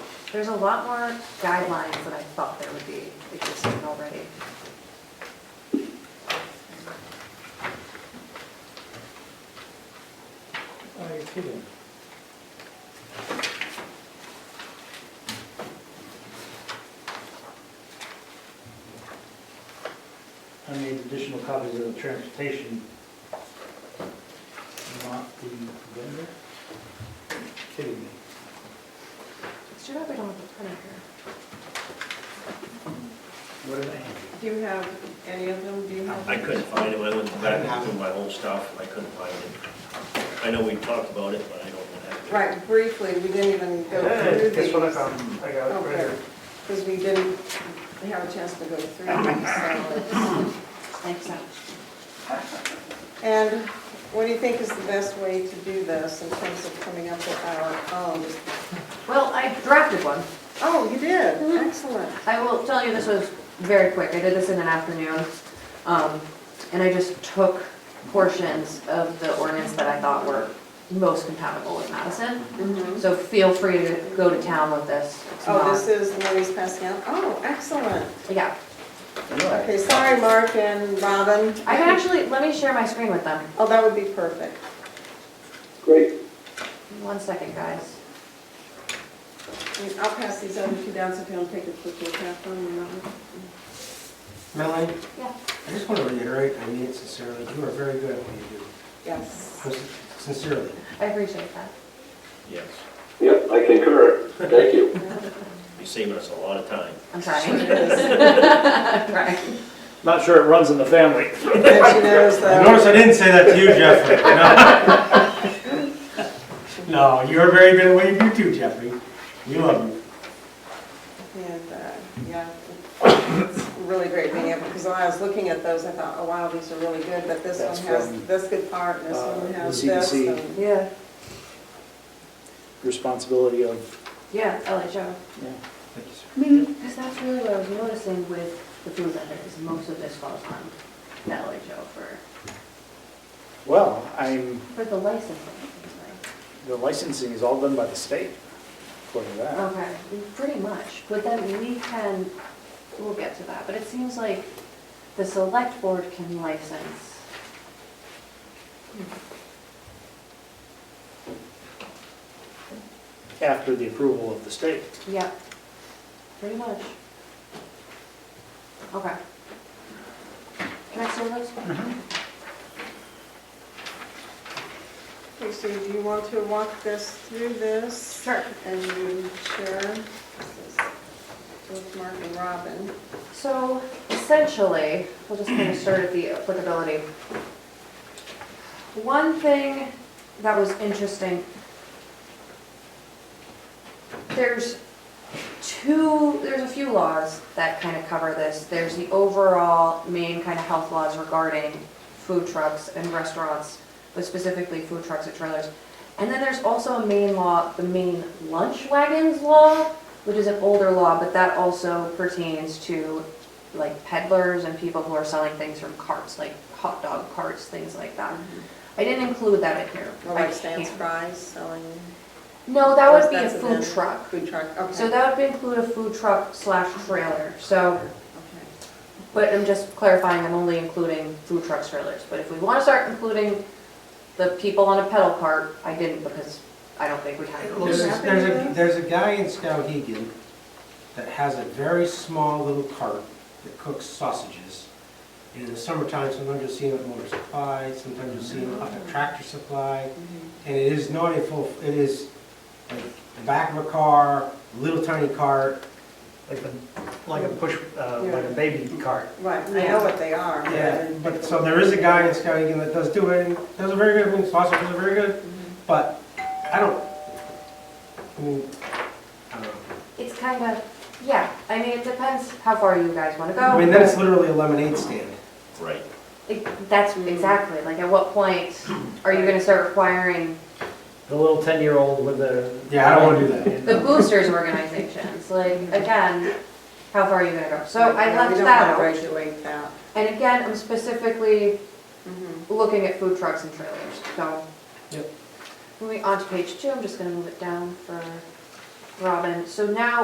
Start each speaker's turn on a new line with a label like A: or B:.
A: There's a lot more guidelines that I thought there would be existing already.
B: Are you kidding? I made additional copies of the transportation, not the vendor. Kidding me.
A: It's too bad we don't have the printer here.
B: What did I have?
C: Do you have any of them? Do you have?
D: I couldn't find it, I went back through my whole stuff, I couldn't find it. I know we talked about it, but I don't have it.
C: Right, briefly, we didn't even go through these.
B: That's what I found. I got it right here.
C: Because we didn't have a chance to go through them, so.
A: Thanks, Al.
C: And what do you think is the best way to do this in terms of coming up with our own?
A: Well, I drafted one.
C: Oh, you did,
A: Mm-hmm.
C: excellent.
A: I will tell you, this was very quick. I did this in an afternoon. um, And I just took portions of the ordinance that I thought were most compatible with Madison. So feel free to go to town with this. It's
C: Oh,
A: not-
C: this is the one he's passing out? Oh, excellent.
A: Yeah,
C: Okay, sorry, Mark and Robin.
A: I can actually, let me share my screen with them.
C: Oh, that would be perfect.
E: Great.
A: One second, guys.
C: And I'll pass these other two down, so if you want to take a quick look at them. and that one.
F: Melanie,
A: Yeah.
F: I just want to reiterate, I mean it sincerely, you are very good at what you
C: Yes.
F: do, sincerely.
A: I appreciate that.
D: Yes,
E: Yep, I concur. Thank you.
D: you're saving us a lot of time.
A: I'm trying. I'm trying.
B: Not sure it runs in the family.
C: That she knows the-
F: Notice I didn't say that to you, Jeffrey. No, No, you are very good at what you do too, Jeffrey. You love you.
C: And, uh, yeah, it's really great being able, because when I was looking at those, I thought, oh wow, these are really good, but this one
G: That's
C: has
G: from,
C: this good part, and this
G: uh,
C: one has
G: the
C: this.
G: CDC.
C: and-
A: Yeah,
G: responsibility of
A: yeah, LHO.
F: Thank you, sir.
A: Because that's really what I was noticing with the food vendor, is most of this falls on the LHO for,
G: Well, I'm,
A: for the licensing.
G: the licensing is all done by the state, according to that.
A: Okay, pretty much, but then we can, we'll get to that, but it seems like the select board can license.
G: After the approval of the state.
A: Yep, pretty much. Okay. Can I still those?
C: Okay, so do you want to walk this through this?
A: Sure.
C: And you share this is with Mark and Robin.
A: So essentially, we'll just kind of start at the applicability. One thing that was interesting, there's two, there's a few laws that kind of cover this. There's the overall main kind of health laws regarding food trucks and restaurants, but specifically food trucks and trailers. And then there's also a main law, the main lunch wagons law, which is an older law, but that also pertains to like peddlers and people who are selling things from carts, like hot dog carts, things like that. I didn't include that in here.
C: Or
A: I
C: like Stan's
A: can't.
C: Fries selling.
A: No, that would be a
C: That's an
A: food
C: in-
A: truck.
C: Food truck, okay.
A: So that would include a food truck slash trailer, so,
C: Okay.
A: but I'm just clarifying, I'm only including food trucks, trailers. But if we want to start including the people on a pedal cart, I didn't because I don't think we had.
F: Well,
A: those.
F: There's,
C: Does that
F: there's
C: happen
F: a,
C: to
F: there's a guy in Skowhegan that has a very small little cart that cooks sausages. And in the summertime, sometimes you'll see him at Motor Supply, sometimes you'll see him up at Tractor Supply. And it is not a full, it is like the back of a car, little tiny cart.
B: Like a, like a push, uh, like a baby cart.
C: Right, I know what they are. but-
F: Yeah, but, so there is a guy in Skowhegan that does do it, and does a very good, I mean, sausages are very good, but I don't, I mean, I don't know.
A: It's kind of, yeah, I mean, it depends how far you guys want to go.
F: I mean, then it's literally a lemonade stand.
D: Right.
A: It- That's exactly, like at what point are you going to start requiring
B: The little ten-year-old with the.
F: Yeah, I don't wanna do that.
A: the boosters organizations? Like, again, how far are you going to go? So
C: Right,
A: I
C: yeah,
A: left that out.
C: We don't want to regulate that.
A: And again, I'm specifically
C: Mhm.
A: looking at food trucks and trailers, so.
F: Yep.
A: Moving on to page two, I'm just gonna move it down for Robin. So now